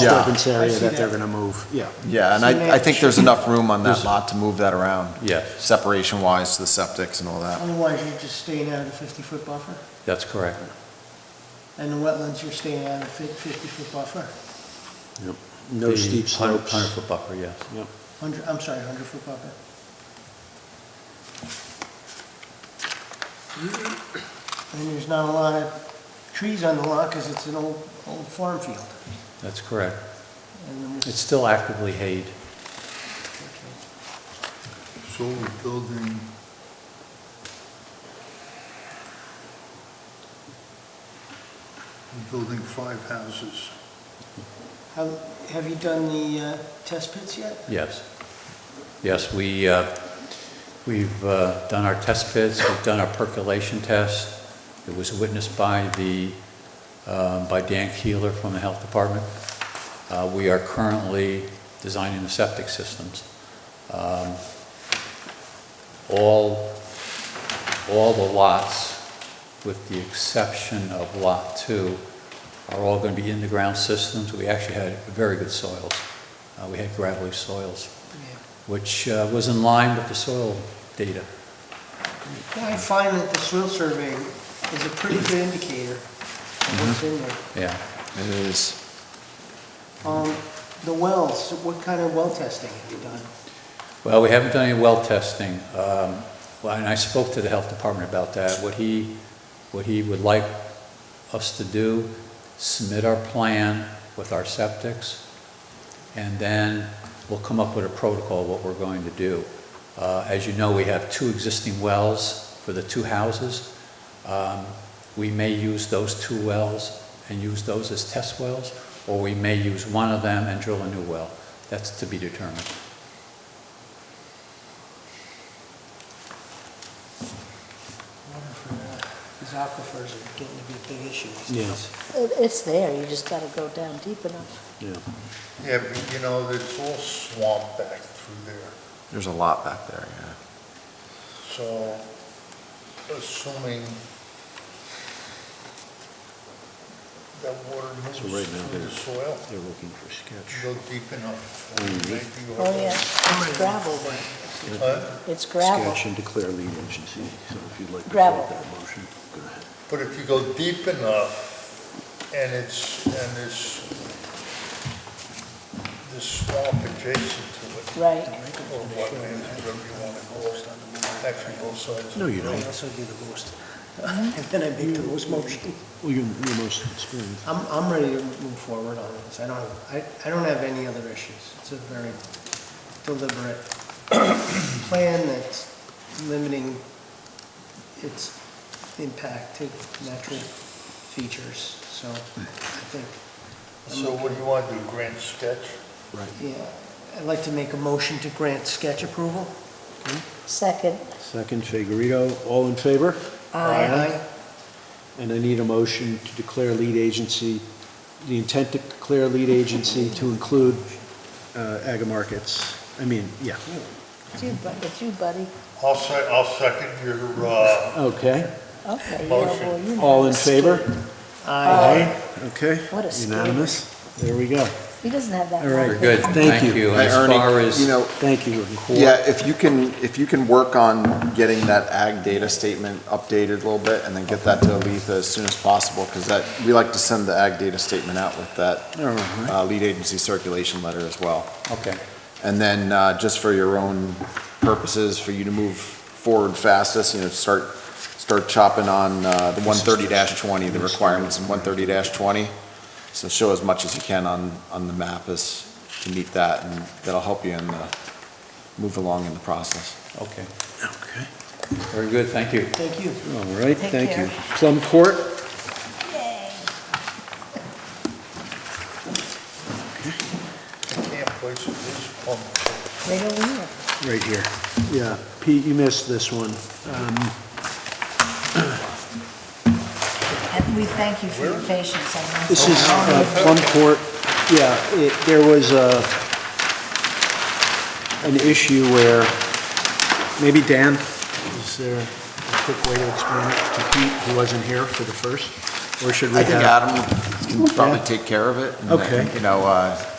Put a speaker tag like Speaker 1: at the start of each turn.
Speaker 1: disturbance area
Speaker 2: I see
Speaker 1: that they're
Speaker 2: that.
Speaker 1: gonna move, yeah.
Speaker 3: Yeah, and I, I think there's enough room on that lot to move that around,
Speaker 4: Yeah,
Speaker 3: separation-wise to the septics and all that.
Speaker 2: Otherwise, you're just staying out of the fifty-foot buffer,
Speaker 4: that's correct.
Speaker 2: and the wetlands, you're staying out of the fifty-foot buffer,
Speaker 1: No steep slopes.
Speaker 4: Hundred-foot buffer, yes.
Speaker 2: hundred, I'm sorry, hundred-foot buffer. And there's not a lot of trees on the lot, because it's an old, old farm field.
Speaker 4: That's correct.
Speaker 2: And
Speaker 4: It's still actively hayed.
Speaker 5: So we're building we're building five houses.
Speaker 2: How, have you done the uh, test pits yet?
Speaker 4: Yes. Yes, we, uh, we've uh, done our test pits, we've done our percolation test. It was witnessed by the, um, by Dan Keeler from the Health Department. Uh, We are currently designing the septic systems. Um, All, all the lots, with the exception of Lot 2, are all going to be in-the-ground systems. We actually had very good soils. Uh, We had gravelly soils which uh, was in line with the soil data.
Speaker 2: Well, I find that the soil survey is a pretty good indicator of what's in there.
Speaker 4: Yeah.
Speaker 3: It is.
Speaker 2: Um, The wells, what kind of well testing have you done?
Speaker 4: Well, we haven't done any well testing. Um, Well, and I spoke to the health department about that. What he, what he would like us to do, submit our plan with our septics, and then we'll come up with a protocol, what we're going to do. Uh, As you know, we have two existing wells for the two houses. Um, We may use those two wells and use those as test wells, or we may use one of them and drill a new well. That's to be determined.
Speaker 2: These aquifers are getting to be a big issue. these
Speaker 1: Yeah.
Speaker 2: days.
Speaker 6: It- It's there, you just gotta go down deep enough.
Speaker 1: Yeah.
Speaker 5: Yeah, but you know, it's all swamp back through there.
Speaker 3: There's a lot back there, yeah.
Speaker 5: So assuming that water moves
Speaker 1: So right now
Speaker 5: through
Speaker 1: they're,
Speaker 5: the soil,
Speaker 1: they're looking for sketch.
Speaker 5: go deep enough.
Speaker 1: Mhm.
Speaker 5: maybe you
Speaker 6: Oh,
Speaker 5: have a-
Speaker 6: yeah, it's gravel, but
Speaker 5: Huh?
Speaker 6: it's gravel.
Speaker 1: Sketch and declare lead agency, so if you'd like to
Speaker 6: Gravel.
Speaker 1: make that motion, go ahead.
Speaker 5: But if you go deep enough and it's, and it's this swamp adjacent to it.
Speaker 6: Right.
Speaker 5: Or wetlands, whatever you want to call it, actually both sides.
Speaker 1: No, you
Speaker 2: I
Speaker 1: don't.
Speaker 2: also do the most. And then I make the most motion.
Speaker 1: Well, you're you're most experienced.
Speaker 2: I'm, I'm ready to move forward on this. I don't, have- I, I don't have any other issues. It's a very deliberate plan that's limiting its impact to natural features, so I think. I'm
Speaker 5: So what do you want to do, grand sketch?
Speaker 1: Right.
Speaker 2: Yeah, I'd like to make a motion to grant sketch approval.
Speaker 6: Second,
Speaker 1: Second, Figurito, all in favor?
Speaker 2: Aye.
Speaker 1: And I need a motion to declare lead agency, the intent to declare lead agency to include uh, Aga Markets. I mean, yeah,
Speaker 6: it's you, bu- it's you, buddy.
Speaker 5: I'll say, I'll second your, uh,
Speaker 1: okay.
Speaker 6: Okay, yeah, well, you know.
Speaker 1: All in favor? Aye. Okay.
Speaker 6: What a scare.
Speaker 1: Unanimous. There we go.
Speaker 6: He doesn't have that.
Speaker 1: All right.
Speaker 6: long.
Speaker 4: We're good,
Speaker 1: Thank
Speaker 4: thank
Speaker 1: you.
Speaker 4: you. And
Speaker 3: Hey,
Speaker 4: As
Speaker 3: Ernie,
Speaker 4: far as,
Speaker 3: you know,
Speaker 1: Thank you. Gordon.
Speaker 3: Yeah, if you can, if you can work on getting that ag data statement updated a little bit and then get that to Aletha as soon as possible, because that, we like to send the ag data statement out with that
Speaker 1: All right.
Speaker 3: uh, lead agency circulation letter as well.
Speaker 4: okay,
Speaker 3: And then, uh, just for your own purposes, for you to move forward fastest, you know, start, start chopping on, uh, the one thirty twenty, the requirements in one thirty twenty. So show as much as you can on, on the map as, to meet that, and that'll help you in the, move along in the process.
Speaker 4: okay.
Speaker 1: Okay.
Speaker 4: Very good, thank you.
Speaker 2: Thank you.
Speaker 1: All right,
Speaker 6: Take
Speaker 1: thank
Speaker 6: care.
Speaker 1: you. Plum Court?
Speaker 5: I can't place it, this pump.
Speaker 6: Right over here.
Speaker 1: Right here. Yeah. Pete, you missed this one. Um,
Speaker 6: And we thank you for your patience on that.
Speaker 1: This is uh, Plum Court, yeah, it, there was a, an issue where, maybe Dan, is there a quick way to explain it to Pete, who wasn't here for the first? Or should we
Speaker 3: I
Speaker 1: have?
Speaker 3: think Adam can probably take care of it. and,
Speaker 1: Okay.
Speaker 3: You know, uh,